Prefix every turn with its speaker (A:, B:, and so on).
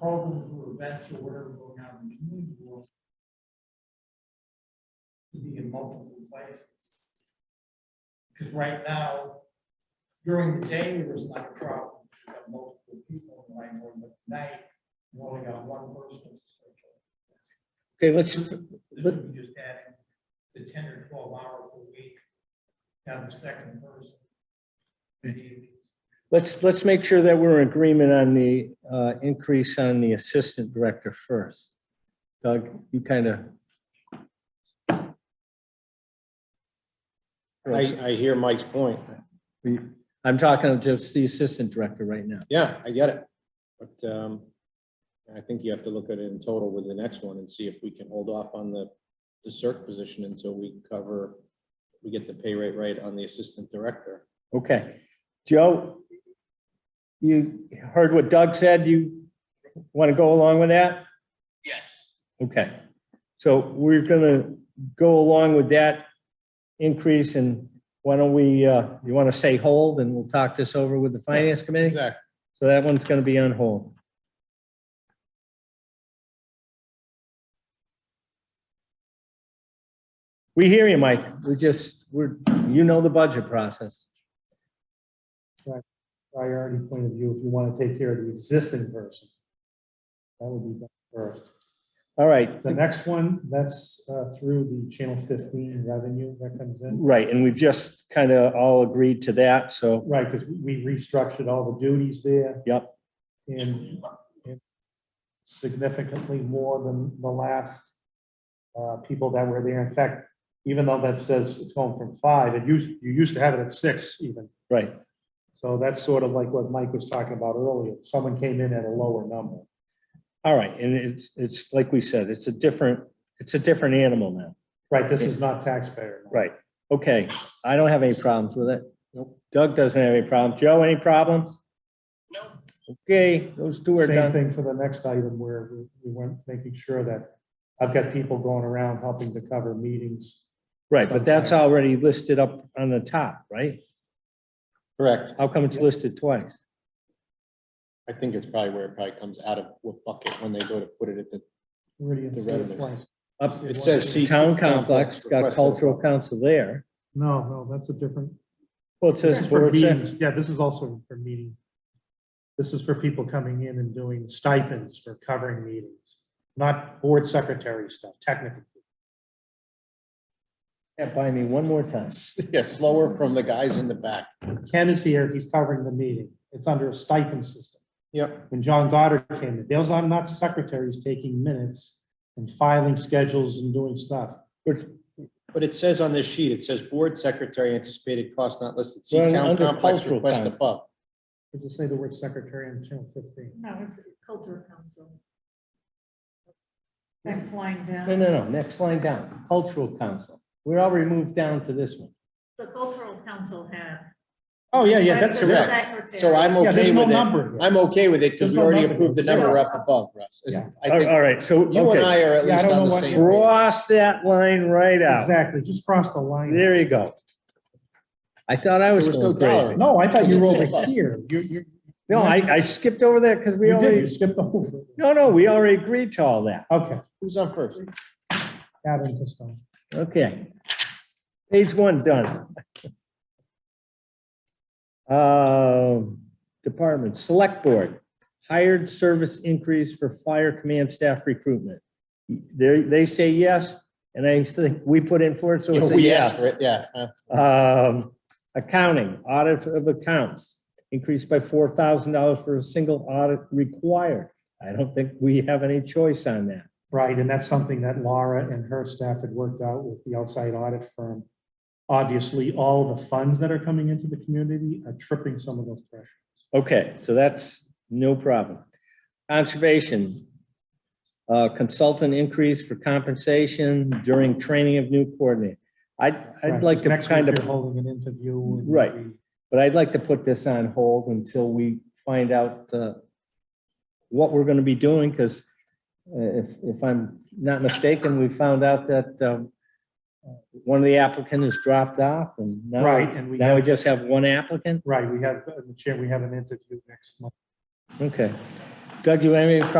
A: programs or events or whatever going on in the community will to be in multiple places. Because right now, during the day, there was not a problem, you got multiple people in line, but at night, you only got one person.
B: Okay, let's,
A: This would be just adding the ten or twelve hour per week, down to second person. in the evenings.
B: let's, let's make sure that we're in agreement on the uh, increase on the assistant director first. Doug, you kind of.
C: I, I hear Mike's point.
B: I'm talking of just the assistant director right now.
C: Yeah, I get it. But um, I think you have to look at it in total with the next one and see if we can hold off on the, the circ position until we cover, we get the pay rate right on the assistant director.
B: Okay. Joe, you heard what Doug said. You want to go along with that?
D: Yes,
B: Okay. So we're going to go along with that increase and why don't we, uh, you want to say hold and we'll talk this over with the finance committee?
C: Exactly.
B: So that one's going to be on hold. We hear you, Mike. We just, we're, you know the budget process.
E: priority point of view, if you want to take care of the existing person. That would be done first.
B: All right,
E: The next one, that's uh, through the Channel 15 revenue that comes in.
B: right, and we've just kind of all agreed to that, so,
E: Right, because we restructured all the duties there.
B: Yep.
E: And and significantly more than the last uh, people that were there. In fact, even though that says it's going from five, it used, you used to have it at six even.
B: right.
E: So that's sort of like what Mike was talking about earlier. Someone came in at a lower number.
B: All right, and it's, it's like we said, it's a different, it's a different animal now.
E: Right, this is not taxpayer.
B: Right. Okay, I don't have any problems with it.
C: Nope.
B: Doug doesn't have any problems. Joe, any problems?
D: no,
B: Okay, those two are
E: Same
B: done.
E: thing for the next item where we- we weren't making sure that, I've got people going around helping to cover meetings.
B: Right, but that's already listed up on the top, right?
C: Correct.
B: How come it's listed twice?
C: I think it's probably where it probably comes out of what bucket when they go to put it at the,
E: Where do you
C: The
E: see it
C: revenues.
E: twice?
B: Up,
C: it says. see-
B: town complex, got
C: requested.
B: cultural council there.
E: No, no, that's a different.
B: Well, it
E: This
B: says oh
E: is for
B: board sec-
E: meetings. Yeah, this is also for meeting. This is for people coming in and doing stipends for covering meetings, not board secretary stuff technically.
B: Can't buy me one more time.
C: yeah, slower from the guys in the back.
E: Ken is here, he's covering the meeting. It's under a stipend system.
C: Yep.
E: when John Goddard came, in, those are not secretaries taking minutes and filing schedules and doing stuff.
C: But it says on this sheet, it says board secretary anticipated cost not listed. See
B: Well,
C: town
B: under
C: complex
B: cultural
C: request
B: plans.
C: above.
E: Did you say the word secretary on channel fifteen?
F: No, it's culture council. Next line
B: No,
F: down,
B: no, no, next line down, cultural council. We're already moved down to this one.
F: the cultural council had.
E: Oh, yeah, yeah, that's
F: requested the
E: correct.
F: secretary.
C: So I'm
E: Yeah,
C: okay
E: there's no
C: with it.
E: number. here.
C: I'm okay with it
E: There's
C: because we
E: no
C: already
E: number.
C: approved the number
F: Yeah.
C: up above, Russ. It's-
E: Yeah.
C: I
B: All
C: think
B: all right, so,
C: you and
B: okay,
C: I are at
E: Yeah, I
C: least
E: don't
C: on
E: know
C: the
E: what-
C: same page.
B: cross that line right out.
E: Exactly, just cross the line.
B: There you go. I thought I was
C: There was no
B: going crazy.
C: dollar.
E: No, I thought you were
C: It's
E: over
C: above.
E: here. You, you,
B: No, I, I skipped over that because we
E: you did, you
B: already,
E: skipped over. it.
B: no, no, we already agreed to all that.
E: Okay,
C: Who's on first?
E: Adam Costello.
B: Okay. Page one, done. Um, Department, Select Board, hired service increase for fire command staff recruitment. They, they say yes, and I think we put in for it, so
C: Yeah,
B: it's a
C: We
B: yes.
C: asked for it, yeah. uh, huh?
B: Um, Accounting, audit of accounts, increased by four thousand dollars for a single audit required. I don't think we have any choice on that.
E: Right, and that's something that Laura and her staff had worked out with the outside audit firm. Obviously, all the funds that are coming into the community are tripping some of those thresholds.
B: Okay, so that's no problem. Conservation. uh, Consultant increase for compensation during training of new coordinator. I'd, I'd
E: Right,
B: like
E: 'cause
B: to
E: next week
B: kind
E: You're
B: of,
E: holding an interview. and
B: Right.
E: we-
B: but I'd like to put this on hold until we find out uh, what we're going to be doing, because if, if I'm not mistaken, we found out that um, one of the applicant has dropped off and now.
E: Right, and we
B: Now we just have one applicant?
E: Right, we have, uh, the chair, we have an interview next month.
B: Okay. Doug, you have any problem